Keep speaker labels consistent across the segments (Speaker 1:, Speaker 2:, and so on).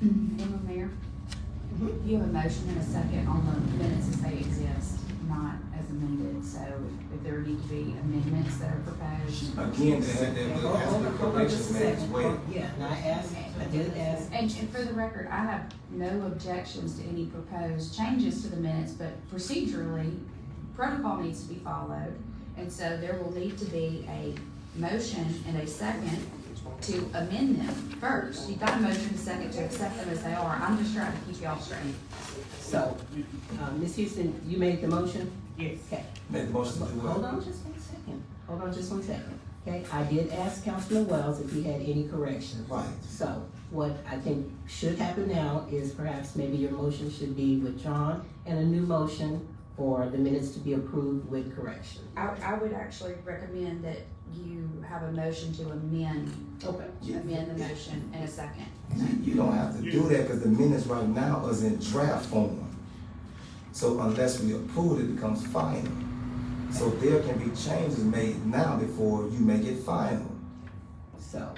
Speaker 1: Madam Mayor, you have a motion and a second on the minutes as they exist, not as amended. So if there need to be amendments that are proposed.
Speaker 2: Again, they had that little aspect of probation man as well.
Speaker 3: Yeah, and I asked, I did ask,
Speaker 1: And and for the record, I have no objections to any proposed changes to the minutes, but procedurally, protocol needs to be followed. And so there will need to be a motion and a second to amend them first. You've got a motion and a second to accept them as they are. I'm just trying to keep y'all straight.
Speaker 3: so, uh, Ms. Houston, you made the motion?
Speaker 4: Yes.
Speaker 3: Okay,
Speaker 2: Made the motion to do
Speaker 3: hold
Speaker 2: what?
Speaker 3: on just one second, hold on just one second. Okay, I did ask Councilman Wells if he had any corrections.
Speaker 2: Right.
Speaker 3: So, what I think should happen now is perhaps maybe your motion should be withdrawn and a new motion for the minutes to be approved with correction.
Speaker 1: I, I would actually recommend that you have a motion to amend,
Speaker 3: Okay.
Speaker 1: amend the motion in a second.
Speaker 2: You don't have to do that because the minutes right now is in draft form. So unless we approve, it becomes final. So there can be changes made now before you make it final.
Speaker 3: So,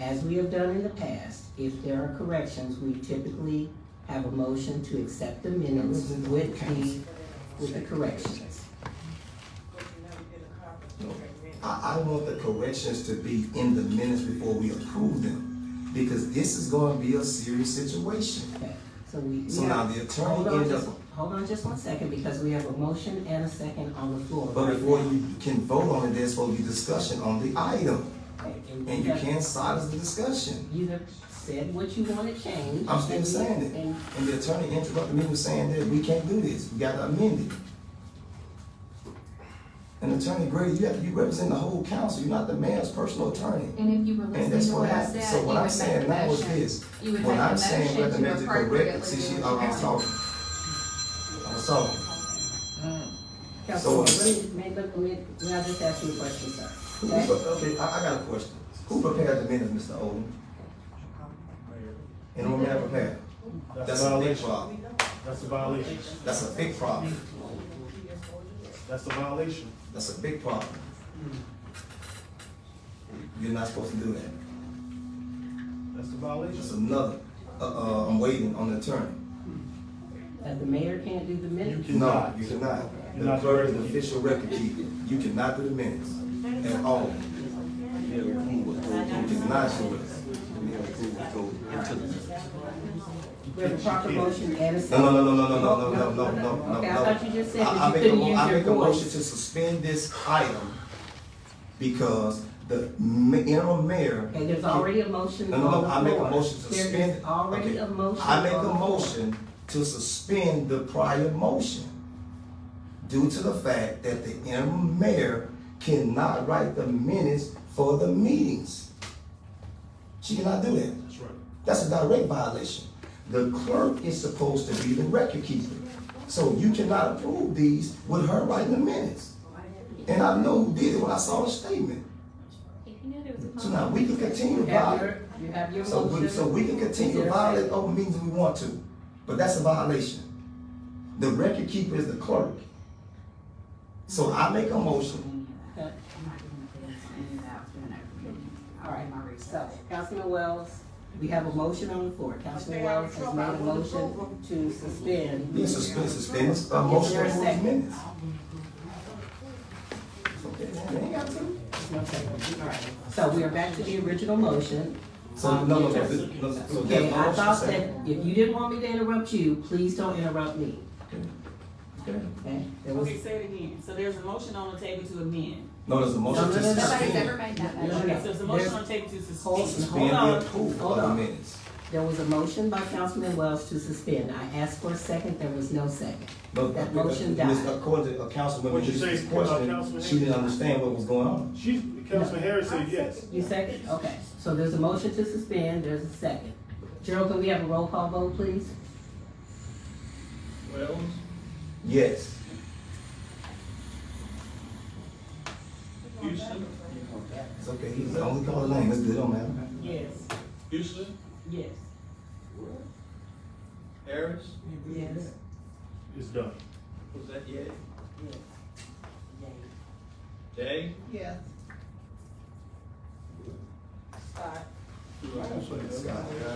Speaker 3: as we have done in the past, if there are corrections, we typically have a motion to accept the minutes with the, with the corrections.
Speaker 2: I, I want the corrections to be in the minutes before we approve them. Because this is gonna be a serious situation.
Speaker 3: Okay, so we.
Speaker 2: So now the attorney
Speaker 3: Hold on
Speaker 2: end
Speaker 3: just-
Speaker 2: up-
Speaker 3: Hold on just one second, because we have a motion and a second on the floor.
Speaker 2: But
Speaker 3: right
Speaker 2: before
Speaker 3: now.
Speaker 2: you can vote on it, there's supposed to be discussion on the item.
Speaker 3: Okay,
Speaker 2: And you can't silence the discussion.
Speaker 3: You have said what you want to change.
Speaker 2: I'm still
Speaker 3: and you-
Speaker 2: saying it.
Speaker 3: and-
Speaker 2: And the attorney interrupted me with saying that we can't do this, we gotta amend it. And Attorney Grady, you have, you represent the whole council, you're not the mayor's personal attorney.
Speaker 1: And if you were
Speaker 2: And
Speaker 1: listening
Speaker 2: that's
Speaker 1: to
Speaker 2: what
Speaker 1: what I
Speaker 2: happened,
Speaker 1: said,
Speaker 2: so
Speaker 1: you
Speaker 2: what
Speaker 1: would
Speaker 2: I'm
Speaker 1: make the
Speaker 2: saying now is
Speaker 1: motion.
Speaker 2: this.
Speaker 1: You would
Speaker 2: When
Speaker 1: make
Speaker 2: I'm
Speaker 1: the
Speaker 2: saying
Speaker 1: motion
Speaker 2: whether
Speaker 1: to
Speaker 2: make it correct,
Speaker 1: appropriately
Speaker 2: see, she,
Speaker 1: do
Speaker 2: I
Speaker 1: what
Speaker 2: was
Speaker 1: you
Speaker 2: talking. I was talking.
Speaker 3: Councilman,
Speaker 2: So-
Speaker 3: let me, may- let me, may I just ask you a question, sir?
Speaker 2: Who-
Speaker 3: Okay?
Speaker 2: Okay, I, I got a question. Who prepared the minutes, Mr. Odom? And who may have prepared?
Speaker 5: That's
Speaker 2: That's
Speaker 5: a
Speaker 2: a big
Speaker 5: violation.
Speaker 2: problem.
Speaker 5: That's a violation.
Speaker 2: That's a big problem.
Speaker 5: That's a violation.
Speaker 2: That's a big problem.
Speaker 5: Hmm.
Speaker 2: You're not supposed to do that.
Speaker 5: That's a
Speaker 2: That's
Speaker 5: violation.
Speaker 2: another, uh, uh, I'm waiting on the attorney.
Speaker 3: That the mayor can't do the minutes?
Speaker 5: You
Speaker 2: No,
Speaker 5: cannot.
Speaker 2: you cannot.
Speaker 5: You're
Speaker 2: The
Speaker 5: not
Speaker 2: clerk is
Speaker 5: the
Speaker 2: the
Speaker 5: record
Speaker 2: official record keeper. You cannot do the minutes at all. You cannot do it.
Speaker 3: We have a proper motion and a
Speaker 2: No,
Speaker 3: second.
Speaker 2: no, no, no, no, no, no, no, no, no, no,
Speaker 3: Okay, I
Speaker 2: no.
Speaker 3: thought you just said
Speaker 2: I-
Speaker 3: that you
Speaker 2: I make a
Speaker 3: couldn't
Speaker 2: mo-
Speaker 3: use
Speaker 2: I
Speaker 3: your
Speaker 2: make a motion
Speaker 3: voice.
Speaker 2: to suspend this item because the ma- interim mayor.
Speaker 3: Okay, there's already a motion
Speaker 2: No,
Speaker 3: on the
Speaker 2: no,
Speaker 3: floor.
Speaker 2: no, I make a motion to suspend.
Speaker 3: There is already a
Speaker 2: Okay.
Speaker 3: motion.
Speaker 2: I make
Speaker 3: on the
Speaker 2: a
Speaker 3: floor.
Speaker 2: motion to suspend the prior motion due to the fact that the interim mayor cannot write the minutes for the meetings. She cannot do that.
Speaker 5: That's right.
Speaker 2: That's a direct violation. The clerk is supposed to be the record keeper. So you cannot approve these with her writing the minutes. And I know who did it when I saw the statement. So now we can continue
Speaker 3: You
Speaker 2: to
Speaker 3: have
Speaker 2: violate.
Speaker 3: your, you have your
Speaker 2: So we,
Speaker 3: motion.
Speaker 2: so we can continue to violate open meetings if we want to, but that's a violation. The record keeper is the clerk. So I make a motion,
Speaker 1: I'm not doing the minutes on any of that during open meeting.
Speaker 3: All
Speaker 1: I'll do my
Speaker 3: right,
Speaker 1: research.
Speaker 3: so Councilman Wells, we have a motion on the floor. Councilman Wells has made a motion to suspend.
Speaker 2: this is, this is, this is a motion to approve the minutes. Okay, man, ain't got to.
Speaker 3: Okay, all right. So we are back to the original motion.
Speaker 2: So, no, no, no, th- no, so
Speaker 3: Okay,
Speaker 2: there's
Speaker 3: I
Speaker 2: no motion
Speaker 3: thought that
Speaker 2: second.
Speaker 3: if you didn't want me to interrupt you, please don't interrupt me,
Speaker 2: Okay.
Speaker 3: okay? There was,
Speaker 6: Okay, say it again. So there's a motion on the table to amend.
Speaker 2: No, there's a motion
Speaker 3: No,
Speaker 2: to
Speaker 3: no, no, no.
Speaker 1: Nobody's ever
Speaker 2: suspend,
Speaker 1: made that
Speaker 3: No, no,
Speaker 1: motion.
Speaker 3: no.
Speaker 6: Okay, so there's a motion on the table to
Speaker 3: Hold-
Speaker 6: suspend.
Speaker 2: suspend the approval
Speaker 3: Hold
Speaker 2: of the
Speaker 3: on.
Speaker 2: minutes.
Speaker 3: there was a motion by Councilman Wells to suspend. I asked for a second, there was no second.
Speaker 2: But-
Speaker 3: That
Speaker 2: but-
Speaker 3: motion
Speaker 2: but Ms.
Speaker 3: died.
Speaker 2: According to uh, Councilwoman
Speaker 5: What'd you say,
Speaker 2: Hughes'
Speaker 5: uh,
Speaker 2: question,
Speaker 5: Councilman
Speaker 2: she didn't understand what was going on.
Speaker 5: She, Councilman Harris said yes.
Speaker 3: You second? Okay, so there's a motion to suspend, there's a second. Gerald, can we have a roll call vote, please?
Speaker 5: Wells?
Speaker 2: Yes.
Speaker 5: Houston?
Speaker 2: It's okay, he's only called a name, it's good, don't matter.
Speaker 3: Yes.
Speaker 5: Houston?
Speaker 3: Yes.
Speaker 5: Harris?
Speaker 3: Yes.
Speaker 5: It's done.
Speaker 7: Was that yay? Day?
Speaker 3: Yes.
Speaker 5: Don't say that.
Speaker 2: Scott.